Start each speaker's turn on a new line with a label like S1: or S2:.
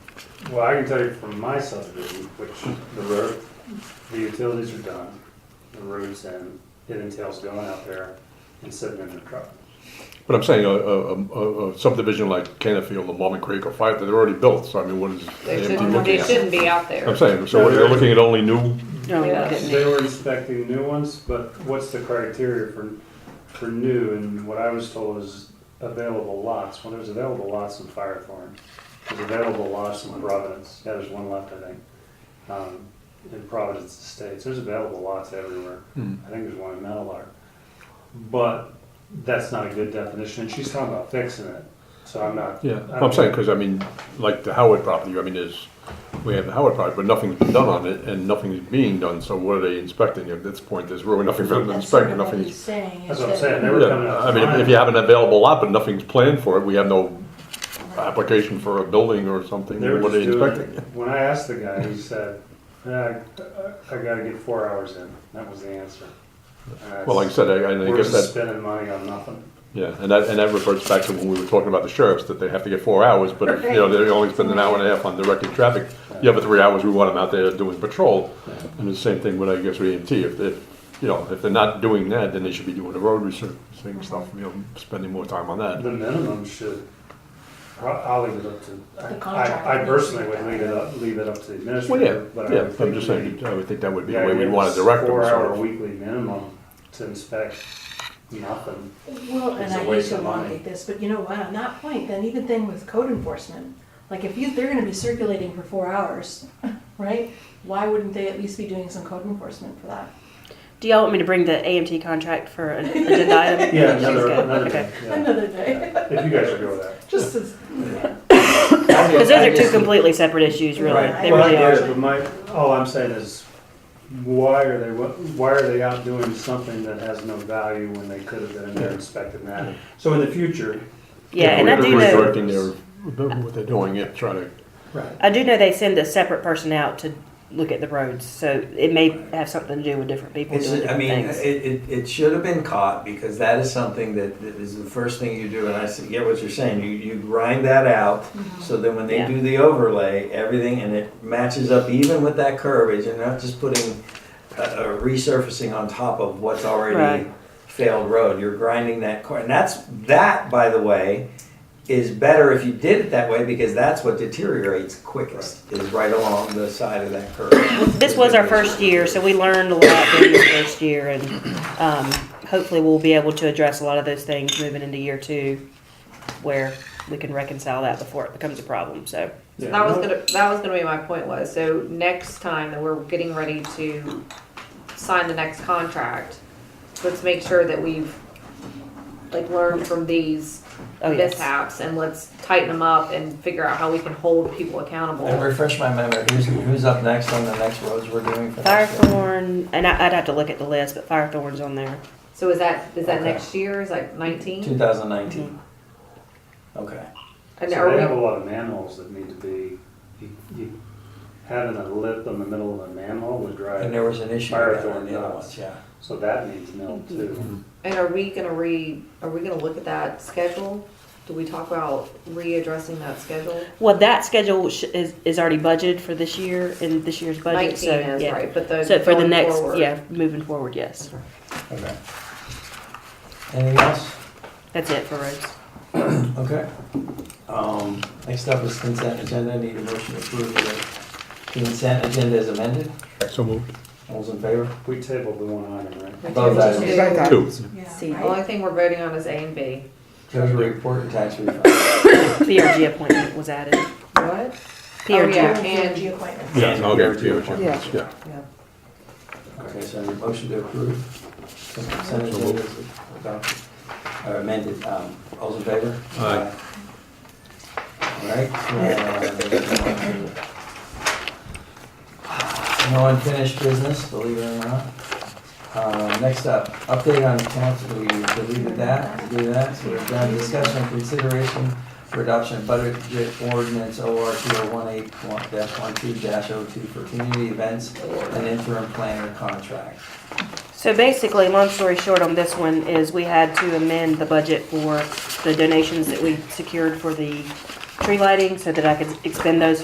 S1: Well, I can tell you from my subdivision, which the road, the utilities are done, the roads, and it entails going out there and sitting in the truck.
S2: But I'm saying a, a, a a subdivision like Canterfield or Mormon Creek or Five, they're already built, so I mean, what is
S3: They
S2: AMD
S3: shouldn't,
S2: looking
S3: they
S2: at?
S3: shouldn't be out
S2: I'm
S3: there.
S2: saying, so they're looking at only new,
S4: No,
S3: Yeah.
S4: look at me.
S1: They were inspecting new ones, but what's the criteria for, for new? And what I was told is available lots. Well, there's available lots in Firethorn. There's available lots in Providence. Yeah, there's one left, I think. Um, in Providence Estates, there's available lots everywhere.
S2: Hmm.
S1: I think there's one in Metalar. But that's not a good definition, and she's talking about fixing it, so I'm not.
S2: yeah,
S1: I
S2: I'm
S1: don't-
S2: saying, because I mean, like the Howard property, I mean, there's, we have the Howard property, but nothing's been done on it, and nothing's being done, so what are they inspecting? At this point, there's really nothing for them to
S5: That's
S2: inspect,
S5: sort
S2: and
S5: of what
S2: nothing's
S5: he's saying.
S1: That's
S5: is
S1: what I'm
S5: that-
S1: saying. They were coming
S2: Yeah,
S1: up.
S2: I mean, if- if you have an available lot, but nothing's planned for it, we have no application for a building or something,
S1: They were
S2: what are
S1: just
S2: they
S1: doing
S2: expecting?
S1: it. When I asked the guy, he said, "Yeah, I, I gotta get four hours in. That was the answer. And
S2: Well, like I
S1: that's-
S2: said, I, I
S1: We're
S2: guess
S1: just
S2: that,
S1: spending money on nothing.
S2: yeah, and that, and that reverts back to when we were talking about the sheriffs, that they have to get four hours, but, if, you know, they only spend an hour and a half on directing traffic. The other three hours, we want them out there doing patrol, and the same thing with, I guess, with EMT, if, if, you know, if they're not doing that, then they should be doing the road resurfacing stuff, you know, spending more time on that.
S1: The minimum should, I- I'll leave it up to,
S5: The
S1: I-
S5: contract
S1: I, I
S5: needs
S1: personally
S5: to
S1: would
S5: be
S1: leave it up, leave it up to the
S2: Well, yeah,
S1: administrator, but I
S2: yeah,
S1: would
S2: I'm
S1: think
S2: just
S1: we.
S2: saying, I would think that would be
S1: Yeah,
S2: the way we'd
S1: it
S2: want
S1: was
S2: to direct them,
S1: Four hour
S2: so.
S1: weekly minimum to inspect nothing.
S5: Well,
S1: It's
S5: and
S1: a
S5: I hate
S1: waste
S5: to
S1: of money.
S5: elongate this, but you know, wow, not point, then even thing with code enforcement. Like if you, they're gonna be circulating for four hours, right? Why wouldn't they at least be doing some code enforcement for that?
S6: Do y'all want me to bring the AMT contract for an agenda item?
S1: Yeah,
S6: She's
S1: another,
S6: good.
S1: another
S6: Okay.
S1: thing, yeah.
S5: Another day,
S1: If you guys are good with that.
S5: just as, yeah.
S6: Because those are two completely separate issues, really.
S5: Right.
S6: They
S1: Well, I
S6: really
S1: get
S6: are.
S1: it, But my, all I'm saying is, why are they, why are they out doing something that has no value when they could have been in there inspecting that? So in the future.
S6: Yeah,
S1: if
S6: and
S1: we're
S6: I do
S1: gonna
S6: know.
S2: Redirecting their, what they're doing, yeah, trying to
S1: Right.
S6: I do know they send a separate person out to look at the roads, so it may have something to do with different people
S7: It's,
S6: doing
S7: I
S6: different
S7: mean,
S6: things.
S7: it, it, it should have been caught because that is something that, that is the first thing you do. And I s- get what you're saying. You, you grind that out. So then when they
S6: Yeah.
S7: do the overlay, everything, and it matches up even with that curvage and not just putting a, a resurfacing on top of what's already
S6: Right.
S7: failed road. You're grinding that corner. And that's, that, by the way, is better if you did it that way because that's what deteriorates quickest, is right along the side of that curve.
S6: This was our first year, so we learned a lot during this first year, and um, hopefully we'll be able to address a lot of those things moving into year two, where we can reconcile that before it becomes a problem. So,
S3: That was gonna, that was gonna be my point was, so next time that we're getting ready to sign the next contract, let's make sure that we've like learned from these
S6: oh yes.
S3: mishaps and let's tighten them up and figure out how we can hold people accountable.
S7: And refresh my memory, who's, who's up next on the next roads we're doing for next year?
S6: Firethorn, and I, I'd have to look at the list, but Firethorn's on there.
S3: So is that, is that
S7: Okay.
S3: next year? Is that nineteen?
S7: 2019. Okay.
S1: So
S3: And
S1: they
S3: are we-
S1: have a lot of manholes that need to be, you- you- having a lip in the middle of a manhole would
S7: And
S1: drive,
S7: there was an issue
S1: Fire
S7: with that on
S1: thorn
S7: the other
S1: nuts.
S7: ones, yeah.
S1: so that needs milled too.
S6: Mm-hmm.
S3: And are we gonna re, are we gonna look at that schedule? Do we talk about readdressing that schedule?
S6: Well, that schedule sh- is, is already budgeted for this year in this year's budget.
S3: Nineteen
S6: So,
S3: is,
S6: yeah.
S3: right, but those.
S6: So for the
S3: going
S6: next,
S3: forward.
S6: yeah, moving forward, yes.
S7: Okay. Anything else?
S6: That's it for roads.
S7: Okay. Um, Next up is consent agenda. Need a motion to approve the consent agenda as amended.
S2: So moved.
S7: All's in favor?
S1: We tabled the one item, right?
S7: Both items.
S3: The
S2: Two.
S5: Yeah, right?
S3: only thing we're voting on is A and B.
S7: Treasury report and tax refund.
S6: PRG appointment was added.
S3: What?
S6: PRG.
S3: Oh, yeah.
S5: And the appointment.
S2: Yeah,
S7: And
S2: okay,
S7: PRG
S2: yeah,
S7: appointments.
S2: yeah.
S7: Okay, so your motion to approve the consent agenda is adopted, or amended. Um, All's in favor?
S2: Aye.
S7: All right. uh, No unfinished business, believe it or not. Uh, Next up, update on council, we deleted that, we do that, so we're down to discussion and consideration for adoption of budget ordinance OR 2018-12-02 for community events and interim planner contract.
S6: So basically, long story short on this one is we had to amend the budget for the donations that we secured for the tree lighting so that I could expend those